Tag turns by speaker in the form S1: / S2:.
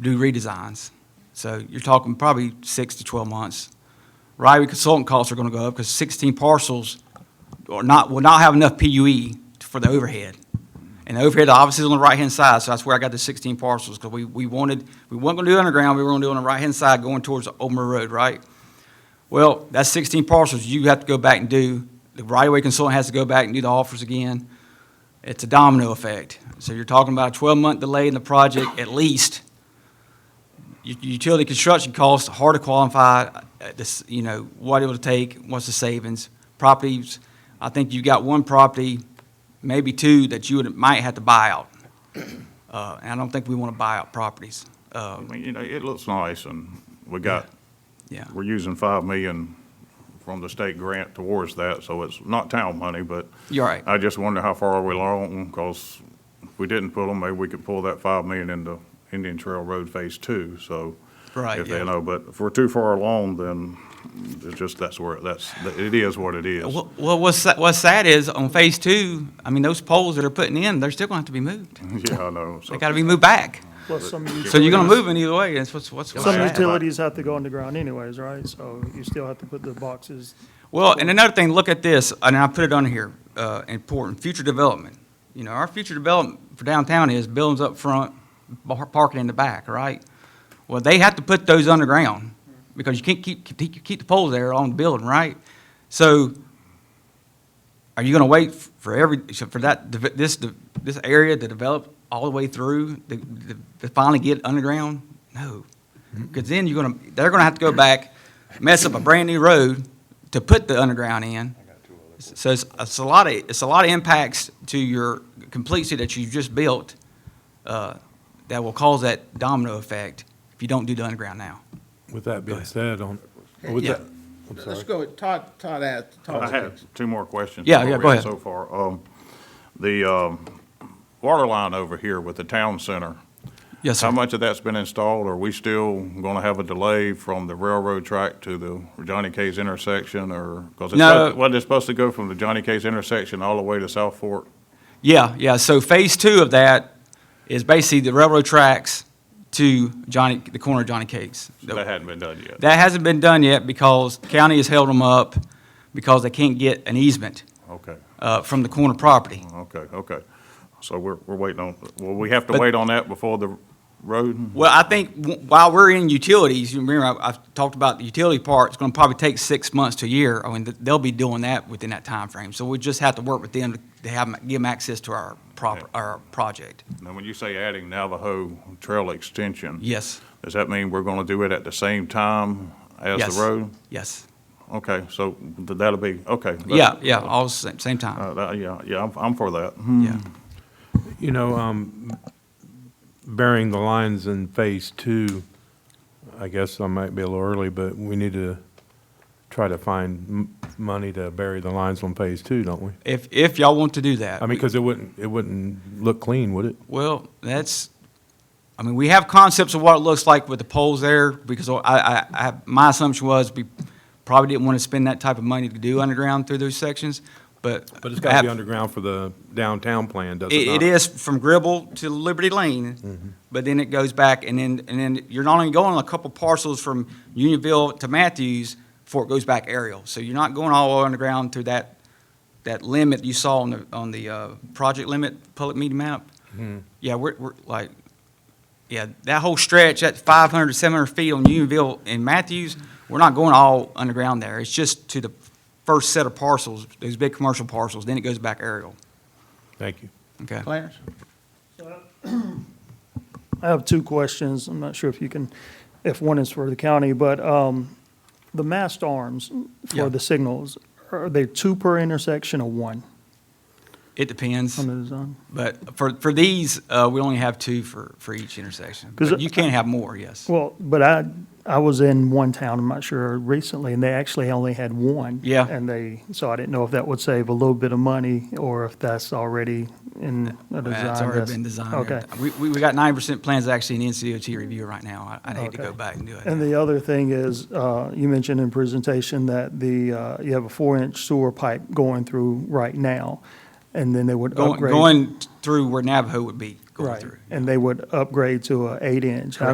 S1: do redesigns. So you're talking probably six to 12 months. Ryrie consultant costs are going to go up because 16 parcels are not, will not have enough PUE for the overhead. And the overhead obviously is on the right-hand side, so that's where I got the 16 parcels, because we, we wanted, we weren't going to do underground, we were going to do on the right-hand side going towards Old Mill Road, right? Well, that's 16 parcels, you have to go back and do, the right-of-way consultant has to go back and do the offers again. It's a domino effect. So you're talking about a 12-month delay in the project at least. U- Utility construction costs, hard to quantify, uh, this, you know, what it would take, what's the savings. Properties, I think you've got one property, maybe two, that you would, might have to buy out. Uh, And I don't think we want to buy out properties. Uh,
S2: I mean, you know, it looks nice, and we got,
S1: Yeah,
S2: we're using five million from the state grant towards that, so it's not town money, but
S1: you're right.
S2: I just wonder how far are we along, because if we didn't pull them, maybe we could pull that five million into Indian Trail Road Phase Two, so.
S1: Right,
S2: If they
S1: yeah.
S2: know, but if we're too far along, then it's just, that's where, that's, it is what it is.
S1: Uh, Well, well, what's, sa- what's sad is on phase two, I mean, those poles that are putting in, they're still going to have to be moved.
S2: Yeah, I know. so-
S1: They got to be moved back.
S3: Plus some utilities.
S1: So you're going to move them either way. That's what's, what's. what's
S3: Some
S1: sad.
S3: utilities have to go underground anyways, right? So you still have to put the boxes.
S1: Well, and another thing, look at this, and I put it on here, uh, important, future development. You know, our future development for downtown is buildings up front, bar- parking in the back, right? Well, they have to put those underground, because you can't keep, keep, keep the poles there on the building, right? So, are you gonna wait for every, so for that, deve- this, de- this area to develop all the way through, to, to finally get underground? No, because then you're gonna, they're gonna have to go back, mess up a brand-new road to put the underground in. So it's, it's a lot of, it's a lot of impacts to your completeness that you just built, uh, that will cause that domino effect if you don't do the underground now.
S4: With that being said, on, with
S1: Yeah.
S4: that, I'm
S5: Let's
S4: sorry.
S5: go with Todd, Todd asked.
S2: I have two more questions.
S1: Yeah,
S2: before
S1: yeah,
S2: we
S1: go
S2: end
S1: ahead.
S2: So far, um, the, um, water line over here with the town center.
S1: Yes,
S2: How
S1: sir.
S2: much of that's been installed? Are we still gonna have a delay from the railroad track to the Johnny K's intersection or? 'cause it's
S1: No.
S2: supposed- Wasn't it supposed to go from the Johnny K's intersection all the way to South Fork?
S1: Yeah, yeah, so phase two of that is basically the railroad tracks to Johnny, the corner of Johnny Cakes.
S2: That hadn't been done yet.
S1: That hasn't been done yet because county has held them up because they can't get an easement,
S2: Okay,
S1: uh, from the corner property.
S2: okay, okay. So we're, we're waiting on, well, we have to
S1: But-
S2: wait on that before the road?
S1: Well, I think w- while we're in utilities, you remember I- I've talked about the utility part, it's gonna probably take six months to a year. I mean, th- they'll be doing that within that time frame. So we just have to work with them to- to have, 'em- give them access to our proper, our project.
S2: Now, when you say adding Navajo Trail Extension.
S1: Yes,
S2: Does that mean we're going to do it at the same time as
S1: Yes.
S2: the road?
S1: yes.
S2: Okay, so th- that'll be, okay. that-
S1: Yeah, yeah, all the same, same time,
S2: Uh, that- Yeah, yeah, I'm, I'm for that. Hmm.
S1: yeah.
S4: You know, um, burying the lines in phase two, I guess I might be a little early, but we need to try to find m- money to bury the lines on phase two, don't we?
S1: If, if y'all want to do that.
S4: I mean, because it wouldn't, it wouldn't look clean, would it?
S1: Well, that's, I mean, we have concepts of what it looks like with the poles there, because I, I, I, my assumption was we probably didn't want to spend that type of money to do underground through those sections, but.
S4: But it's got to be
S1: I-
S4: underground for the downtown plan, does it
S1: It,
S4: not?
S1: it is from Gribble to Liberty Lane, but then it goes back, and then, and then you're not only going a couple parcels from Unionville to Matthews before it goes back aerial. So you're not going all the way underground through that, that limit you saw on the, on the, uh, project limit, public meeting map. Yeah, we're, we're like, yeah, that whole stretch, that 500 to 700 feet on Unionville and Matthews, we're not going all underground there. It's just to the first set of parcels, those big commercial parcels, then it goes back aerial,
S4: Thank you.
S1: okay?
S5: Clarence?
S3: I have two questions. I'm not sure if you can, if one is for the county, but, um, the mast arms
S1: Yeah.
S3: for the signals, are they two per intersection or one
S1: It depends.
S3: on the design?
S1: But for, for these, uh, we only have two for, for each intersection.
S3: 'Cause
S1: But you can have more, yes.
S3: Well, but I, I was in one town, I'm not sure, recently, and they actually only had one.
S1: Yeah.
S3: And they, so I didn't know if that would save a little bit of money, or if that's already in a design.
S1: That's already
S3: that's-
S1: been designed.
S3: Okay.
S1: We, we we got nine percent plans actually in NCOT review right now. I- I'd hate to
S3: Okay.
S1: go back and do it.
S3: And the other thing is, uh, you mentioned in presentation that the, uh, you have a four-inch sewer pipe going through right now, and then they would
S1: Going,
S3: upgrade.
S1: going through where Navajo would be going
S3: Right,
S1: through.
S3: and they would upgrade to a eight-inch. I